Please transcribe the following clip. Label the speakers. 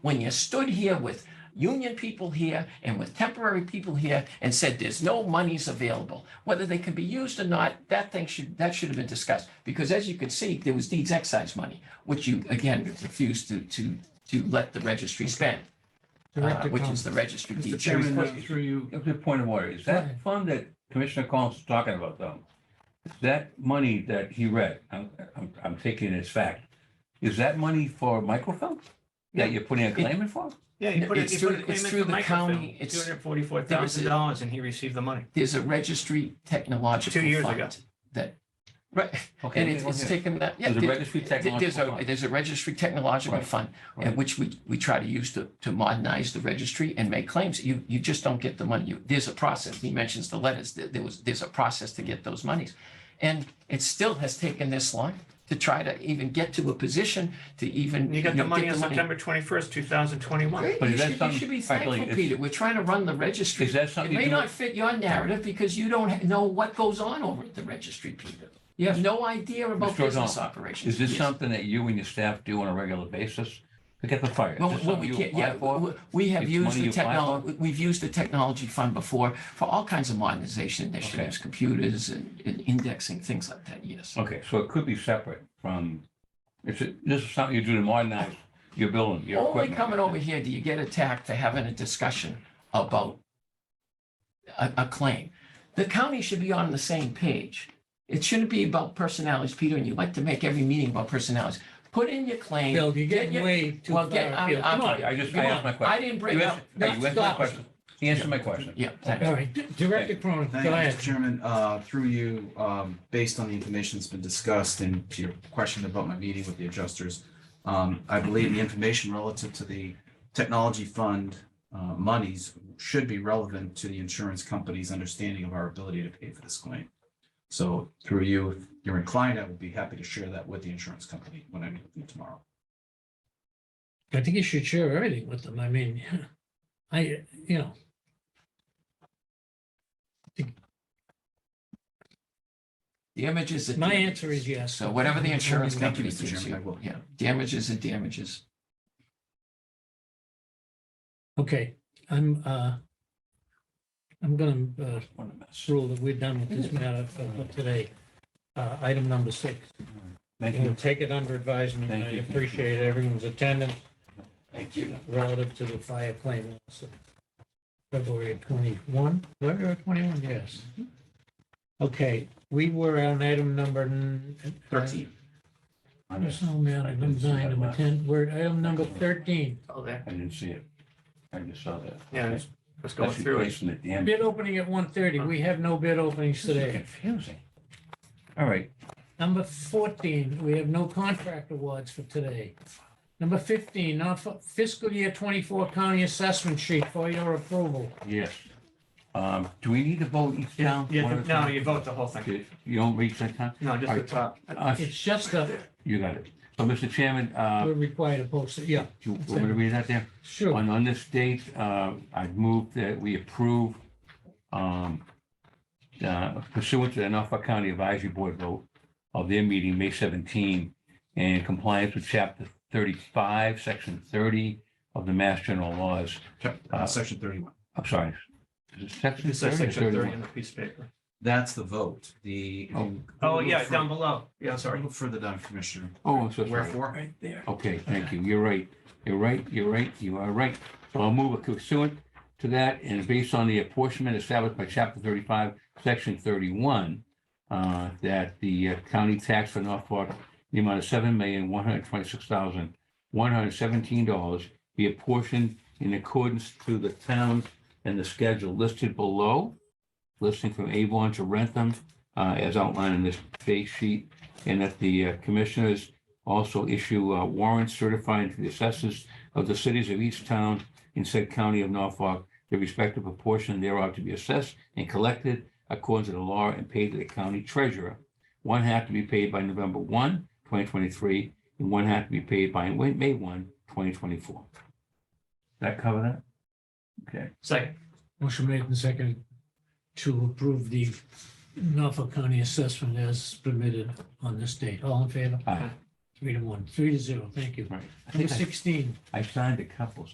Speaker 1: when you stood here with union people here and with temporary people here and said there's no monies available, whether they can be used or not, that thing should, that should have been discussed. Because as you can see, there was deeds excise money, which you, again, refused to, to, to let the registry spend, uh,
Speaker 2: Director
Speaker 1: which
Speaker 2: Thomas.
Speaker 1: is the registry
Speaker 3: Mr.
Speaker 1: deeds.
Speaker 3: Chairman, uh,
Speaker 1: excise.
Speaker 3: through you, a good point of order. Is that fund that Commissioner Collins is talking about though? is That money that he read, I'm, I'm, I'm taking it as fact. Is that money for microfilm? That you're putting a claim in for?
Speaker 4: Yeah, you put
Speaker 1: It's
Speaker 4: it, you put
Speaker 1: through-
Speaker 4: a claim
Speaker 1: it's
Speaker 4: in
Speaker 1: through
Speaker 4: for
Speaker 1: the county.
Speaker 4: microfilm,
Speaker 1: It's-
Speaker 4: two hundred forty-four thousand dollars, and he received the money.
Speaker 1: There's a registry technological.
Speaker 4: Two years
Speaker 1: fund
Speaker 4: ago.
Speaker 1: That, right,
Speaker 3: Okay,
Speaker 1: and
Speaker 3: okay,
Speaker 1: it's, it's
Speaker 3: okay.
Speaker 1: taken that. yeah,
Speaker 3: There's a
Speaker 1: there-
Speaker 3: registry
Speaker 1: there- There's
Speaker 3: technological
Speaker 1: a,
Speaker 3: fund.
Speaker 1: there's a registry technological
Speaker 3: Right,
Speaker 1: fund, and
Speaker 3: right.
Speaker 1: which we, we try to use to, to modernize the registry and make claims. You, you just don't get the money. You, there's a process. He mentions the letters. There, there was, there's a process to get those monies. And it still has taken this long to try to even get to a position to even.
Speaker 4: And you got the
Speaker 1: know,
Speaker 4: money
Speaker 1: get
Speaker 4: on September twenty-first, two thousand twenty-one.
Speaker 1: Great.
Speaker 3: But
Speaker 1: You
Speaker 3: is that
Speaker 1: should, you
Speaker 3: something-
Speaker 1: should be
Speaker 3: all right, Billy,
Speaker 1: thankful,
Speaker 3: is-
Speaker 1: Peter. We're trying to run the registry.
Speaker 3: Is
Speaker 1: It
Speaker 3: that something?
Speaker 1: may
Speaker 3: to do-
Speaker 1: not fit your narrative because you don't know what goes on over at the registry, Peter. You have no idea about
Speaker 3: Mr. O'Donnell,
Speaker 1: business operations.
Speaker 3: Is this
Speaker 1: Yes.
Speaker 3: something that you and your staff do on a regular basis? Look at the fire. Is
Speaker 1: Well,
Speaker 3: this
Speaker 1: well,
Speaker 3: something
Speaker 1: we
Speaker 3: you
Speaker 1: can't,
Speaker 3: apply
Speaker 1: yeah,
Speaker 3: for?
Speaker 1: we- we have
Speaker 3: It's
Speaker 1: used
Speaker 3: money
Speaker 1: the
Speaker 3: you apply
Speaker 1: technology, we've used the technology fund before for all kinds of modernization initiatives, computers and and indexing, things like that, yes.
Speaker 3: Okay, so it could be separate from, it's, a- this is something you do to modernize your building, your
Speaker 1: Only
Speaker 3: equipment.
Speaker 1: coming over here do you get attacked for having a discussion about a, a claim. The county should be on the same page. It shouldn't be about personalities, Peter, and you like to make every meeting about personalities. Put in your claim.
Speaker 2: Bill, you're
Speaker 1: get
Speaker 2: getting
Speaker 1: your-
Speaker 2: way too
Speaker 1: Well,
Speaker 2: far.
Speaker 1: get- I'm-
Speaker 2: afield.
Speaker 1: I'm-
Speaker 2: Come on.
Speaker 3: I just,
Speaker 1: Come
Speaker 3: I
Speaker 1: on,
Speaker 3: asked my
Speaker 1: I
Speaker 3: question.
Speaker 1: didn't
Speaker 3: You
Speaker 1: bring up.
Speaker 3: answered- hey, you answered my
Speaker 2: stop.
Speaker 3: question. He answered my question.
Speaker 1: Yeah, thanks.
Speaker 2: All right, D- Director Cronin, go
Speaker 5: Thank you,
Speaker 2: ahead.
Speaker 5: Mr. Chairman. Uh, Through you, um, based on the information that's been discussed and to your question about my meeting with the adjusters, um, I believe the information relative to the technology fund uh, monies should be relevant to the insurance company's understanding of our ability to pay for this claim. So through you, if you're inclined, I would be happy to share that with the insurance company when I meet with them tomorrow.
Speaker 2: I think you should share everything with them. I mean, I, you know.
Speaker 1: Damages are.
Speaker 2: My
Speaker 1: damages.
Speaker 2: answer is yes.
Speaker 1: So whatever the insurance
Speaker 5: Thank you,
Speaker 1: company
Speaker 5: Mr.
Speaker 1: gives
Speaker 5: Chairman, I
Speaker 1: you,
Speaker 5: will.
Speaker 1: yeah, damages are damages.
Speaker 2: Okay, I'm, uh, I'm gonna, uh,
Speaker 3: What a mess.
Speaker 2: rule that we're done with this matter for for today. Uh, item number six.
Speaker 3: Thank
Speaker 2: We'll
Speaker 3: you.
Speaker 2: take it under advisement.
Speaker 3: Thank
Speaker 2: I
Speaker 3: you.
Speaker 2: appreciate everyone's attendance
Speaker 1: Thank you.
Speaker 2: relative to the fire claim. lawsuit. February twenty-one, February twenty-one, yes. Okay, we were on item number. n-
Speaker 5: Thirteen.
Speaker 3: I
Speaker 2: Yes,
Speaker 3: just-
Speaker 2: Oh, man, I didn't sign number ten, we're at item number thirteen.
Speaker 4: Oh, there,
Speaker 3: I didn't see it. I just saw that.
Speaker 4: Yeah,
Speaker 3: That's-
Speaker 4: let's go
Speaker 3: That's
Speaker 4: through it.
Speaker 3: replacing it, damn.
Speaker 2: Bid opening at one thirty, we have no bid openings
Speaker 3: This is
Speaker 2: today.
Speaker 3: confusing. All right,
Speaker 2: Number fourteen, we have no contract awards for today. Number fifteen, not for- fiscal year twenty-four county assessment sheet for your approval.
Speaker 3: yes. Um, do we need to vote each
Speaker 4: Yeah,
Speaker 3: town? one
Speaker 4: yeah,
Speaker 3: at a
Speaker 4: no,
Speaker 3: time?
Speaker 4: you vote the whole thing.
Speaker 3: You you don't reach that time?
Speaker 4: No, just the top.
Speaker 3: Uh,
Speaker 2: It's just a,
Speaker 3: You got it. So, Mr. Chairman, uh,
Speaker 2: we're required to post it, yeah,
Speaker 3: do you want me to read that there?
Speaker 2: sure.
Speaker 3: On, on this date, uh, I've moved that we approve, um, uh, pursuant to the Norfolk County Advisory Board vote of their meeting, May 17, in compliance with Chapter 35, Section 30 of the Mass General Laws.
Speaker 5: Chap- uh, Section thirty-one.
Speaker 3: I'm sorry. is it Section
Speaker 4: It says
Speaker 3: 30 or
Speaker 4: section thirty
Speaker 3: 31?
Speaker 4: on the piece of paper.
Speaker 5: That's the vote. The.
Speaker 3: Oh.
Speaker 4: Oh, yeah, down below. Yeah, sorry.
Speaker 5: Sorry, further down, Commissioner.
Speaker 3: Oh, I'm so sorry.
Speaker 5: Wherefore?
Speaker 3: Okay, thank you. You're right. You're right. You're right. You are right. So I'll move it pursuant to that and based on the apportionment established by chapter thirty-five, section thirty-one, uh, that the uh, county tax for Norfolk, in the amount of seven million, one hundred twenty-six thousand, one hundred seventeen dollars be apportioned in accordance to the towns and the schedule listed below, listing from Avon to Rentham, uh, as outlined in this base sheet, and that the uh, commissioners also issue uh, warrants certifying to the assessors of the cities of each town in said county of Norfolk, the respective proportion thereof to be assessed and collected according to the law and paid to the county treasurer. One half to be paid by November 1, 2023, and one half to be paid by May 1, 2024. That cover that? Okay.
Speaker 4: Second,
Speaker 2: Motion made and second to approve the Norfolk County assessment as permitted on this date. All in favor?
Speaker 3: Aye.
Speaker 2: Three to one, three to zero, thank you.
Speaker 3: Right. I
Speaker 2: Number
Speaker 3: think I-
Speaker 2: sixteen.
Speaker 3: I signed a couple,